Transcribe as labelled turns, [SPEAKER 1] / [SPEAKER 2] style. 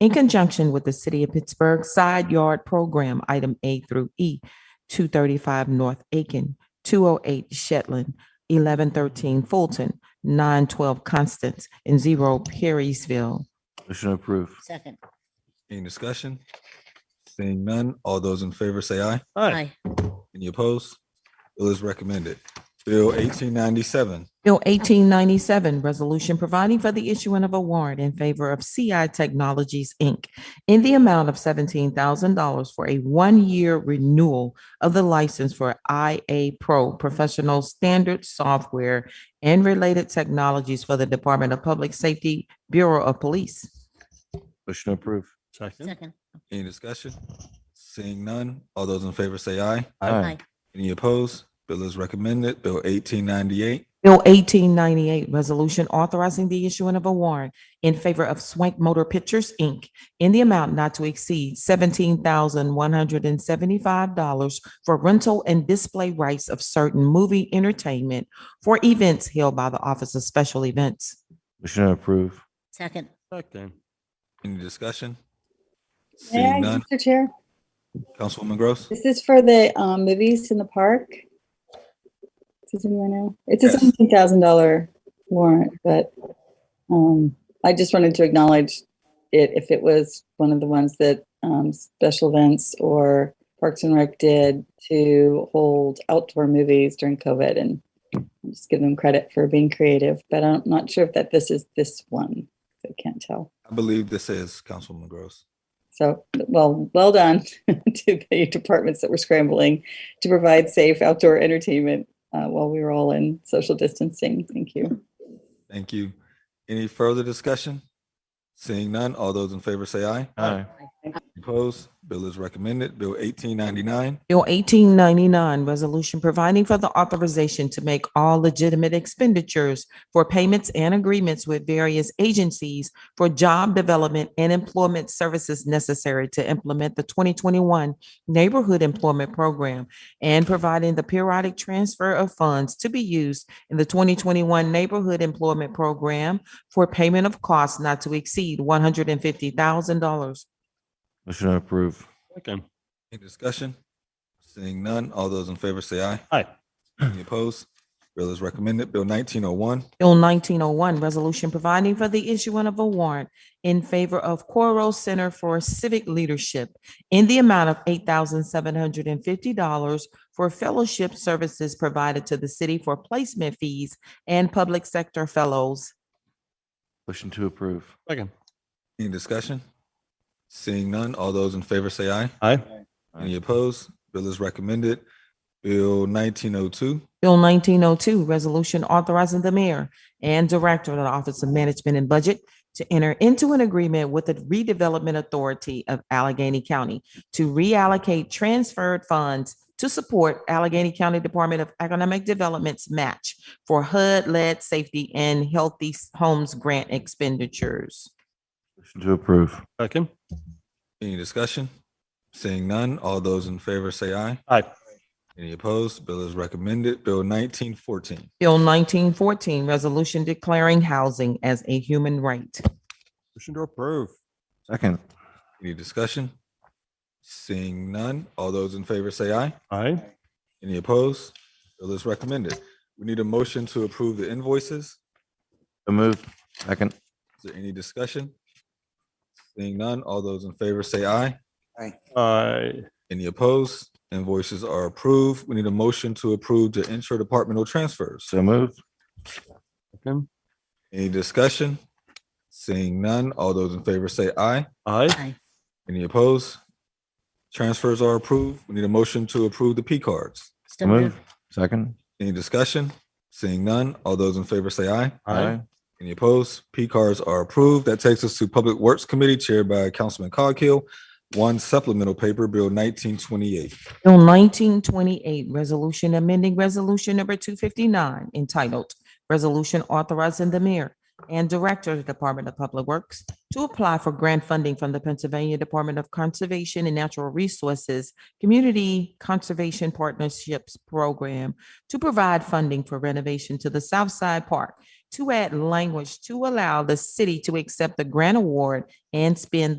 [SPEAKER 1] in conjunction with the City of Pittsburgh Side Yard Program, Item A through E, two thirty-five North Aiken, two oh eight Shetland, eleven thirteen Fulton, nine twelve Constance, and zero Perrysville.
[SPEAKER 2] Motion approved.
[SPEAKER 3] Second.
[SPEAKER 4] Any discussion? Seeing none, all those in favor say aye.
[SPEAKER 3] Aye.
[SPEAKER 4] Any opposed? Bill is recommended. Bill eighteen ninety-seven,
[SPEAKER 1] Bill eighteen ninety-seven, resolution providing for the issuing of a warrant in favor of CI Technologies, Inc. in the amount of seventeen thousand dollars for a one-year renewal of the license for IA Pro Professional Standard Software and related technologies for the Department of Public Safety Bureau of Police.
[SPEAKER 2] Motion approved.
[SPEAKER 5] Second.
[SPEAKER 3] Second.
[SPEAKER 4] any discussion? Seeing none, all those in favor say aye.
[SPEAKER 3] Aye.
[SPEAKER 4] Any opposed? Bill is recommended. Bill eighteen ninety-eight,
[SPEAKER 1] Bill eighteen ninety-eight, resolution authorizing the issuing of a warrant in favor of Swank Motor Pictures, Inc. in the amount not to exceed seventeen thousand one hundred and seventy-five dollars for rental and display rights of certain movie entertainment for events held by the Office of Special Events.
[SPEAKER 2] Motion approved.
[SPEAKER 3] Second.
[SPEAKER 5] Second.
[SPEAKER 4] any discussion? Seeing
[SPEAKER 6] Yeah,
[SPEAKER 4] none,
[SPEAKER 6] Mr. Chair,
[SPEAKER 4] Councilwoman Gross?
[SPEAKER 6] this is for the um, movies in the park. Does anyone know? It's a
[SPEAKER 4] Yes.
[SPEAKER 6] seventeen thousand dollar warrant, but um, I just wanted to acknowledge it if it was one of the ones that um, special events or Parks and Rec did to hold outdoor movies during COVID and just give them credit for being creative, but I'm not sure if that this is this one. so I can't tell.
[SPEAKER 4] I believe this is Councilwoman Gross.
[SPEAKER 6] So, well, well done to the departments that were scrambling to provide safe outdoor entertainment uh, while we were all in social distancing. Thank you.
[SPEAKER 4] Thank you. Any further discussion? Seeing none, all those in favor say aye.
[SPEAKER 2] Aye.
[SPEAKER 4] Opposed? Bill is recommended. Bill eighteen ninety-nine,
[SPEAKER 1] Bill eighteen ninety-nine, resolution providing for the authorization to make all legitimate expenditures for payments and agreements with various agencies for job development and employment services necessary to implement the twenty twenty-one Neighborhood Employment Program and providing the periodic transfer of funds to be used in the twenty twenty-one Neighborhood Employment Program for payment of costs not to exceed one hundred and fifty thousand dollars.
[SPEAKER 2] Motion approved.
[SPEAKER 5] Second.
[SPEAKER 4] any discussion? Seeing none, all those in favor say aye.
[SPEAKER 5] Aye.
[SPEAKER 4] Any opposed? Bill is recommended. Bill nineteen oh one,
[SPEAKER 1] Bill nineteen oh one, resolution providing for the issuing of a warrant in favor of Coro Center for Civic Leadership in the amount of eight thousand seven hundred and fifty dollars for fellowship services provided to the city for placement fees and public sector fellows.
[SPEAKER 2] Motion to approve.
[SPEAKER 5] Second.
[SPEAKER 4] any discussion? Seeing none, all those in favor say aye.
[SPEAKER 5] Aye.
[SPEAKER 4] Any opposed? Bill is recommended. Bill nineteen oh two,
[SPEAKER 1] Bill nineteen oh two, resolution authorizing the mayor and director of the Office of Management and Budget to enter into an agreement with the redevelopment authority of Allegheny County to reallocate transferred funds to support Allegheny County Department of Economic Development's match for HUD-led safety and healthy homes grant expenditures.
[SPEAKER 2] Motion to approve.
[SPEAKER 5] Second.
[SPEAKER 4] any discussion? Seeing none, all those in favor say aye.
[SPEAKER 5] Aye.
[SPEAKER 4] Any opposed? Bill is recommended. Bill nineteen fourteen,
[SPEAKER 1] Bill nineteen fourteen, resolution declaring housing as a human right.
[SPEAKER 5] Motion to approve.
[SPEAKER 2] Second.
[SPEAKER 4] any discussion? Seeing none, all those in favor say aye.
[SPEAKER 5] Aye.
[SPEAKER 4] Any opposed? Bill is recommended. We need a motion to approve the invoices.
[SPEAKER 2] So moved. Second.
[SPEAKER 4] Is there any discussion? Seeing none, all those in favor say aye.
[SPEAKER 5] Aye.
[SPEAKER 4] Any opposed? Invoices are approved. We need a motion to approve the interdepartmental transfers.
[SPEAKER 2] So moved.
[SPEAKER 5] Second.
[SPEAKER 4] Any discussion? Seeing none, all those in favor say aye.
[SPEAKER 5] Aye.
[SPEAKER 3] Aye.
[SPEAKER 4] Any opposed? Transfers are approved. We need a motion to approve the P cards.
[SPEAKER 2] So
[SPEAKER 3] So
[SPEAKER 2] moved.
[SPEAKER 3] moved.
[SPEAKER 2] Second.
[SPEAKER 4] Any discussion? Seeing none, all those in favor say aye.
[SPEAKER 5] Aye.
[SPEAKER 4] Any opposed? P cards are approved. That takes us to Public Works Committee chaired by Councilman Coghill. One supplemental paper, Bill nineteen twenty-eight.
[SPEAKER 1] Bill nineteen twenty-eight, resolution amending resolution number two fifty-nine entitled Resolution Authorizing the Mayor and Director of the Department of Public Works to apply for grant funding from the Pennsylvania Department of Conservation and Natural Resources Community Conservation Partnerships Program to provide funding for renovation to the South Side Park to add language to allow the city to accept the grant award and spend